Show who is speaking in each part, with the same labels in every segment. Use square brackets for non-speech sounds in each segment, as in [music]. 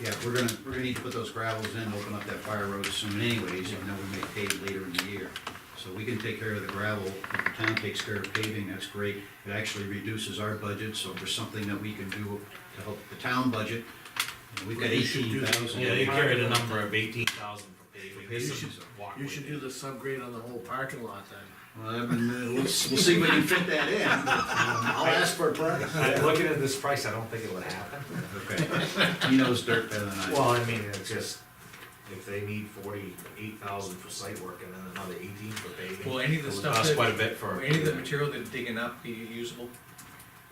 Speaker 1: Yeah, we're gonna, we're gonna need to put those gravels in, open up that fire road soon anyways, even though we may pave later in the year. So we can take care of the gravel, if the town takes care of paving, that's great. It actually reduces our budget, so if there's something that we can do to help the town budget, you know, we've got
Speaker 2: You should do
Speaker 1: eighteen
Speaker 2: that.
Speaker 1: thousand.
Speaker 3: Yeah, they carried a number of eighteen thousand for paving.
Speaker 1: For paving.
Speaker 3: Some walkway
Speaker 2: You should do
Speaker 3: paving.
Speaker 2: the subgrade on the whole parking lot then.
Speaker 1: Well, I mean, uh, we'll, we'll see if we can fit that in, but, um, I'll ask for a price.
Speaker 4: I'm Looking at this price, I don't think it would happen.
Speaker 1: Okay, [laughs] he knows dirt better than I do.
Speaker 4: Well, I mean, it's just, if they need forty-eight thousand for site work and then another eighteen for paving.
Speaker 5: Will any of the
Speaker 4: it would
Speaker 5: stuff
Speaker 4: cost
Speaker 5: that-
Speaker 4: Quite a bit for.
Speaker 5: Any of the material they're digging up be usable?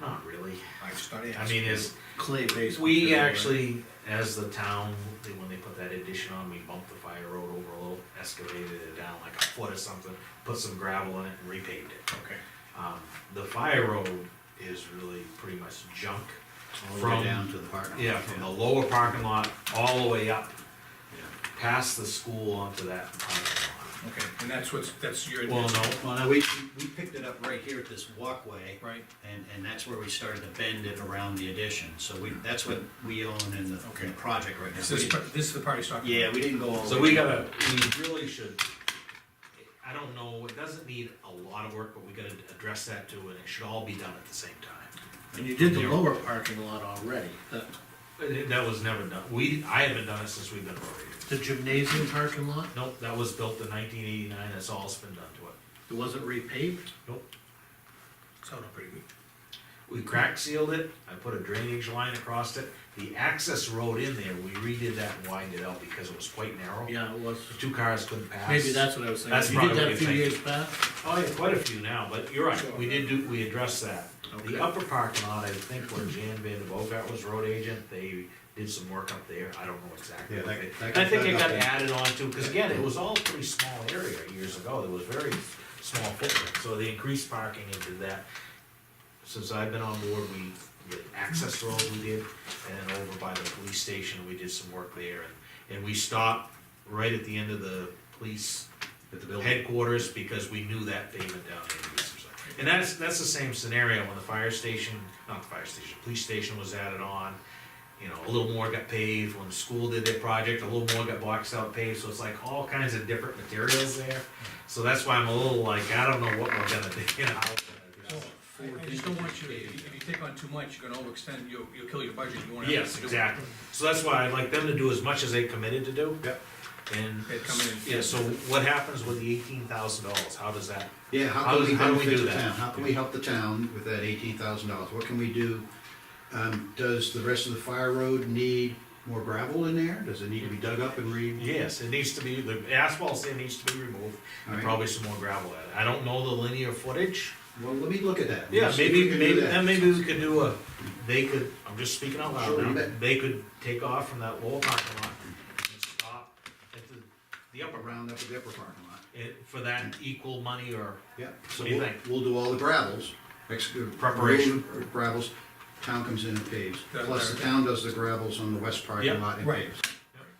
Speaker 4: Not really.
Speaker 5: I started
Speaker 4: I mean, is,
Speaker 2: Clay base.
Speaker 4: we
Speaker 2: material, right?
Speaker 4: actually, as the town, they- when they put that addition on, we bumped the fire road over a little, excavated it down like a foot or something, put some gravel in it and repaved it.
Speaker 5: Okay.
Speaker 4: Um, the fire road is really pretty much junk
Speaker 1: All the way
Speaker 4: from
Speaker 1: down to the parking lot.
Speaker 4: Yeah, from the lower parking lot all the way up,
Speaker 1: Yeah.
Speaker 4: past the school onto that parking
Speaker 5: Okay, and that's what's, that's your,
Speaker 4: lot. Well,
Speaker 5: right?
Speaker 4: no,
Speaker 1: Well, now, we, we picked it up right here at this walkway, and, and that's where we started to bend it around the addition, so we, that's what we own in the, in the project right
Speaker 5: This is,
Speaker 1: now.
Speaker 5: par- this is the part he's talking about?
Speaker 1: Yeah, we didn't go all the way.
Speaker 4: so we gotta, we really should, I don't know, it doesn't need a lot of work, but we gotta address that too, and it should all be done at the same time.
Speaker 2: And you did the lower parking lot already, the,
Speaker 4: But it- That was never done, we, I haven't done it since we've been over
Speaker 2: the gymnasium parking lot,
Speaker 4: here. Nope, that was built in nineteen eighty-nine, that's all that's been done to it.
Speaker 2: it wasn't repaved?
Speaker 4: Nope.
Speaker 5: Sounded pretty good.
Speaker 4: We crack sealed it, I put a drainage line across it, the access road in there, we redid that and widened it out because it was quite narrow.
Speaker 2: Yeah, it was,
Speaker 4: The Two cars couldn't pass.
Speaker 2: maybe that's what I was
Speaker 4: That's
Speaker 2: thinking, you
Speaker 4: probably what
Speaker 2: did that a few
Speaker 4: you
Speaker 2: years back?
Speaker 4: Oh, yeah, quite a few now, but you're right, we did do, we addressed that.
Speaker 2: Okay.
Speaker 4: The upper parking lot, I think when Jan Van de Bogart was road agent, they did some work up there, I don't know exactly.
Speaker 1: Yeah,
Speaker 4: what
Speaker 1: that-
Speaker 4: they-
Speaker 1: that
Speaker 4: I think
Speaker 1: got
Speaker 4: it got
Speaker 1: dug up.
Speaker 4: added on to, because again, it was all pretty small area years ago, there was very small footprint, so they increased parking and did that. Since I've been on board, we, the access road we did, and then over by the police station, we did some work there, and, and we stopped right at the end of the police
Speaker 1: At the building.
Speaker 4: headquarters because we knew that pavement down there. would be some stuff. And that's, that's the same scenario when the fire station, not the fire station, police station was added on. You know, a little more got paved, when the school did their project, a little more got boxed out paved, so it's like all kinds of different materials there. So that's why I'm a little like, I don't know what we're gonna do, [laughs] you know. how we're gonna do that.
Speaker 5: I I just don't want you, to- if you take on too much, you're gonna overextend, you'll, you'll kill your budget, you won't have.
Speaker 4: Yes,
Speaker 5: to do it.
Speaker 4: exactly. So that's why I'd like them to do as much as they committed to do. Yep. And,
Speaker 5: They'd come in and-
Speaker 4: yeah, so what happens with the eighteen thousand dollars? How does that?
Speaker 1: Yeah, how
Speaker 4: How
Speaker 1: can
Speaker 4: does-
Speaker 1: we
Speaker 4: how do we
Speaker 1: benefit
Speaker 4: do
Speaker 1: the
Speaker 4: that?
Speaker 1: town? How can we help the town with that eighteen thousand dollars? What can we do? Um, does the rest of the fire road need more gravel in there? Does it need to be dug up and re?
Speaker 4: Yes, it needs to be, the asphalt sand needs to be removed, and
Speaker 1: Alright.
Speaker 4: probably some more gravel at it. I don't know the linear footage.
Speaker 1: Well, let me look at that.
Speaker 4: Yeah,
Speaker 1: Let's see if we
Speaker 4: maybe,
Speaker 1: can do
Speaker 4: maybe,
Speaker 1: that.
Speaker 4: then maybe we could do a, they could, I'm just speaking out
Speaker 1: Sure, you
Speaker 4: loud now,
Speaker 1: bet.
Speaker 4: they could take off from that lower parking lot and stop at the, the upper round,
Speaker 1: Round up the upper parking lot.
Speaker 4: eh, for that equal money or,
Speaker 1: Yeah. So
Speaker 4: What do you
Speaker 1: we'll-
Speaker 4: think?
Speaker 1: We'll do all the gravels, ex-
Speaker 4: Preparation.
Speaker 1: remove Gravels, town comes in and paves,
Speaker 5: That's
Speaker 1: plus the
Speaker 5: better.
Speaker 1: town does the gravels on the west
Speaker 4: Yeah,
Speaker 1: parking lot and
Speaker 5: right.
Speaker 1: paves.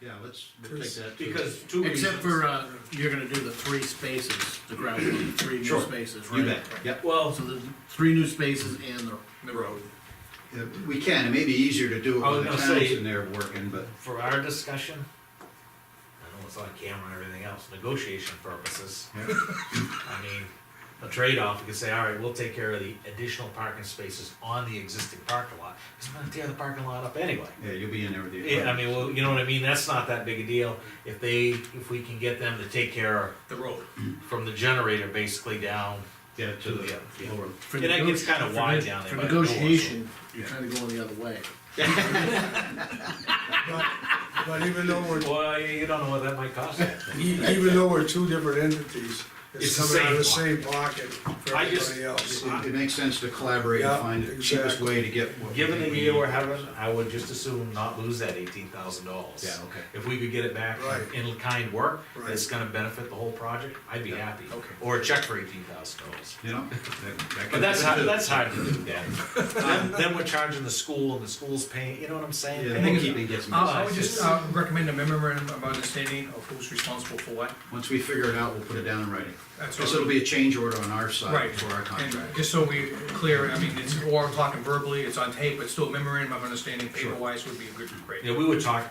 Speaker 1: Yeah, let's, we'll take
Speaker 2: Because-
Speaker 1: that. too.
Speaker 4: because two
Speaker 2: Except
Speaker 4: reasons.
Speaker 2: for, uh, you're gonna do the three spaces, the gravel, the three new
Speaker 1: Sure.
Speaker 2: spaces, right?
Speaker 1: You bet, yep.
Speaker 4: Well,
Speaker 2: So the three new spaces and the
Speaker 5: The road.
Speaker 1: Yeah, Uh, We can, it may be easier to do it
Speaker 4: I was
Speaker 1: when the
Speaker 4: gonna
Speaker 1: town's
Speaker 4: say-
Speaker 1: in there working, but
Speaker 4: for our discussion, I know it's on camera and everything else, negotiation purposes,
Speaker 1: yeah,
Speaker 4: I mean, a trade-off, we could say, all right, we'll take care of the additional parking spaces on the existing parking lot, because we're gonna tear the parking lot up anyway.
Speaker 1: yeah, you'll be in there with the.
Speaker 4: Yeah, I mean, well, you know what I mean, that's not that big a deal, if they, if we can get them to take care
Speaker 5: The road.
Speaker 4: of, from the generator basically down.
Speaker 1: Yeah, to the
Speaker 4: Yeah.
Speaker 1: lower.
Speaker 2: for
Speaker 4: And that gets
Speaker 2: nego-
Speaker 4: kinda
Speaker 2: for
Speaker 4: wide
Speaker 2: neg-
Speaker 4: down there
Speaker 2: For
Speaker 4: by the door, so-
Speaker 2: negotiation, you're
Speaker 1: Yeah.
Speaker 2: kinda going the other way.
Speaker 6: But but even though we're, e,
Speaker 4: Well, you don't know what that might cost.
Speaker 6: even though we're two different entities,
Speaker 4: It's
Speaker 6: it's
Speaker 4: the
Speaker 6: coming out of the
Speaker 4: same
Speaker 6: same pocket for
Speaker 4: I just-
Speaker 6: everybody else.
Speaker 1: It it makes sense to collaborate and
Speaker 6: Yeah,
Speaker 1: find the cheapest
Speaker 6: exactly.
Speaker 1: way to get what. we
Speaker 4: Given the
Speaker 1: think we
Speaker 4: year
Speaker 1: need.
Speaker 4: we're having, I would just assume not lose that eighteen thousand dollars.
Speaker 1: Yeah, okay.
Speaker 4: If we could get it back
Speaker 6: Right.
Speaker 4: in kind work,
Speaker 6: Right.
Speaker 4: that's gonna benefit the whole project, I'd be happy.
Speaker 5: okay.
Speaker 4: Or a check for eighteen thousand dollars.
Speaker 1: You know? that- that
Speaker 4: But
Speaker 1: can
Speaker 4: that's hard,
Speaker 1: happen too.
Speaker 4: that's hard to do, [laughs] Then, then we're charging the school and the school's paying, you know what I'm saying?
Speaker 1: Yeah,
Speaker 5: I think it's-
Speaker 1: bookkeeping gets
Speaker 5: Uh,
Speaker 1: messy.
Speaker 5: I would just, uh, recommend a memorandum of understanding of who's responsible for what.
Speaker 1: Once we figure it out, we'll put it down in writing.
Speaker 5: That's
Speaker 1: Because
Speaker 5: all.
Speaker 1: it'll be a change order on our side
Speaker 5: Right,
Speaker 1: for our
Speaker 5: and
Speaker 1: contract.
Speaker 5: just so we clear, I mean, it's, or I'm talking verbally, it's on tape, but still memorandum of understanding, paper-wise would be a good, great.
Speaker 4: Yeah, we were talking,